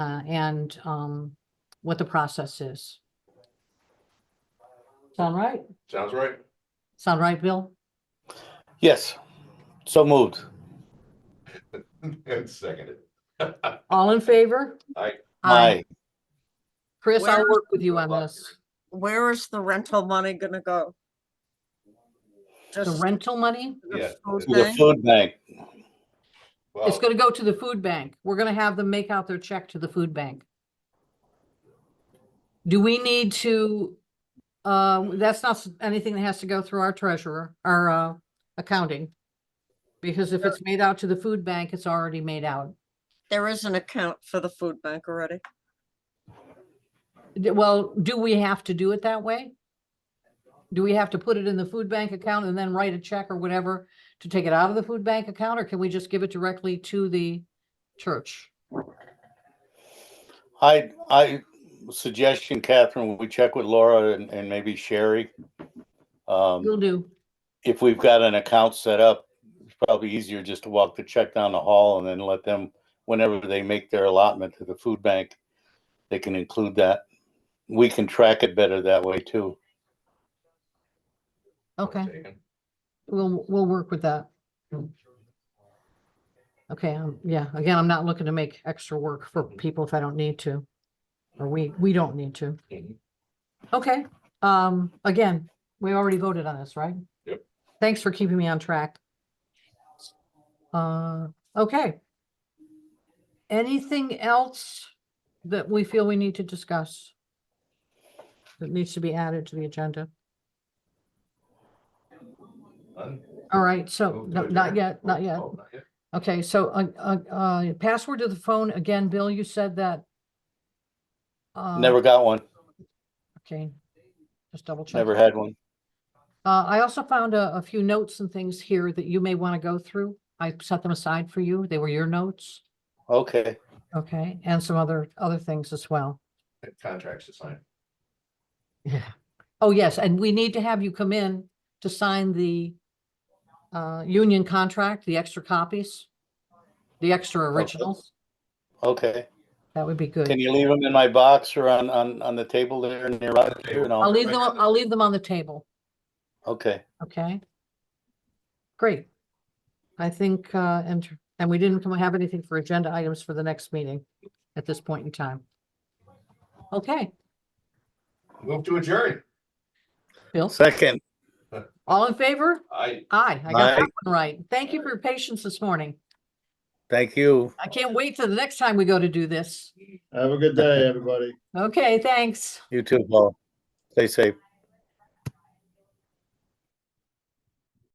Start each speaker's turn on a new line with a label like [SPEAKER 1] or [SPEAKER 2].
[SPEAKER 1] uh, and um, what the process is. Sound right?
[SPEAKER 2] Sounds right.
[SPEAKER 1] Sound right, Bill?
[SPEAKER 3] Yes, so moved.
[SPEAKER 2] And seconded.
[SPEAKER 1] All in favor?
[SPEAKER 2] Aye.
[SPEAKER 3] Aye.
[SPEAKER 1] Chris, I'll
[SPEAKER 4] Where-
[SPEAKER 1] work with you on this.
[SPEAKER 4] Where is the rental money gonna go?
[SPEAKER 1] The
[SPEAKER 4] Just
[SPEAKER 1] rental money,
[SPEAKER 4] the
[SPEAKER 2] Yeah.
[SPEAKER 4] food
[SPEAKER 3] To the
[SPEAKER 4] bank?
[SPEAKER 3] food bank.
[SPEAKER 1] it's
[SPEAKER 2] Well,
[SPEAKER 1] gonna go to the food bank. We're gonna have them make out their check to the food bank. Do we need to, uh, that's not s- anything that has to go through our treasurer, our uh, accounting. Because if it's made out to the food bank, it's already made out.
[SPEAKER 4] There is an account for the food bank already.
[SPEAKER 1] D- Well, do we have to do it that way? Do we have to put it in the food bank account and then write a check or whatever to take it out of the food bank account, or can we just give it directly to the church?
[SPEAKER 3] I, I suggestion, Catherine, we check with Laura and, and maybe Sherry.
[SPEAKER 1] Will
[SPEAKER 3] Um,
[SPEAKER 1] do.
[SPEAKER 3] if we've got an account set up, it's probably easier just to walk the check down the hall and then let them, whenever they make their allotment to the food bank, they can include that. We can track it better that way too.
[SPEAKER 1] Okay,
[SPEAKER 2] taken.
[SPEAKER 1] we'll, we'll work with that. Okay, um, yeah, again, I'm not looking to make extra work for people if I don't need to. Or we, we don't need to.
[SPEAKER 2] Mhm.
[SPEAKER 1] Okay, um, again, we already voted on this, right?
[SPEAKER 2] Yep.
[SPEAKER 1] Thanks for keeping me on track. Uh, okay. Anything else that we feel we need to discuss? That needs to be added to the agenda?
[SPEAKER 2] Done.
[SPEAKER 1] All right, so,
[SPEAKER 2] Move to
[SPEAKER 1] no, not
[SPEAKER 2] adjourn.
[SPEAKER 1] yet, not
[SPEAKER 2] Oh,
[SPEAKER 1] yet.
[SPEAKER 2] oh, not yet.
[SPEAKER 1] Okay, so, uh, uh, uh, password to the phone, again, Bill, you said that. uh,
[SPEAKER 3] Never got one,
[SPEAKER 1] Okay, just double check.
[SPEAKER 3] never had one.
[SPEAKER 1] Uh, I also found a, a few notes and things here that you may want to go through. I set them aside for you. They were your notes.
[SPEAKER 3] Okay,
[SPEAKER 1] Okay, and some other, other things as well.
[SPEAKER 2] And Contracts to sign.
[SPEAKER 1] Yeah. Oh, yes, and we need to have you come in to sign the uh, union contract, the extra copies, the extra originals.
[SPEAKER 3] okay.
[SPEAKER 1] That would be good.
[SPEAKER 3] Oh, Can you leave them in my box or on, on, on the table there near Roger? And
[SPEAKER 1] I'll
[SPEAKER 3] I'll-
[SPEAKER 1] leave them, I'll leave them on the table,
[SPEAKER 3] Okay,
[SPEAKER 1] okay? Great. I think, uh, and, and we didn't have anything for agenda items for the next meeting at this point in time. Okay,
[SPEAKER 2] Move to adjourn.
[SPEAKER 1] Bill,
[SPEAKER 3] second.
[SPEAKER 1] all in favor?
[SPEAKER 2] Aye.
[SPEAKER 1] Aye, I got
[SPEAKER 3] Aye.
[SPEAKER 1] that one right. Thank you for your patience this morning.
[SPEAKER 3] Thank you.
[SPEAKER 1] I can't wait till the next time we go to do this.
[SPEAKER 5] Have a good day, everybody.
[SPEAKER 1] Okay, thanks.
[SPEAKER 3] You too, Paul. Stay safe.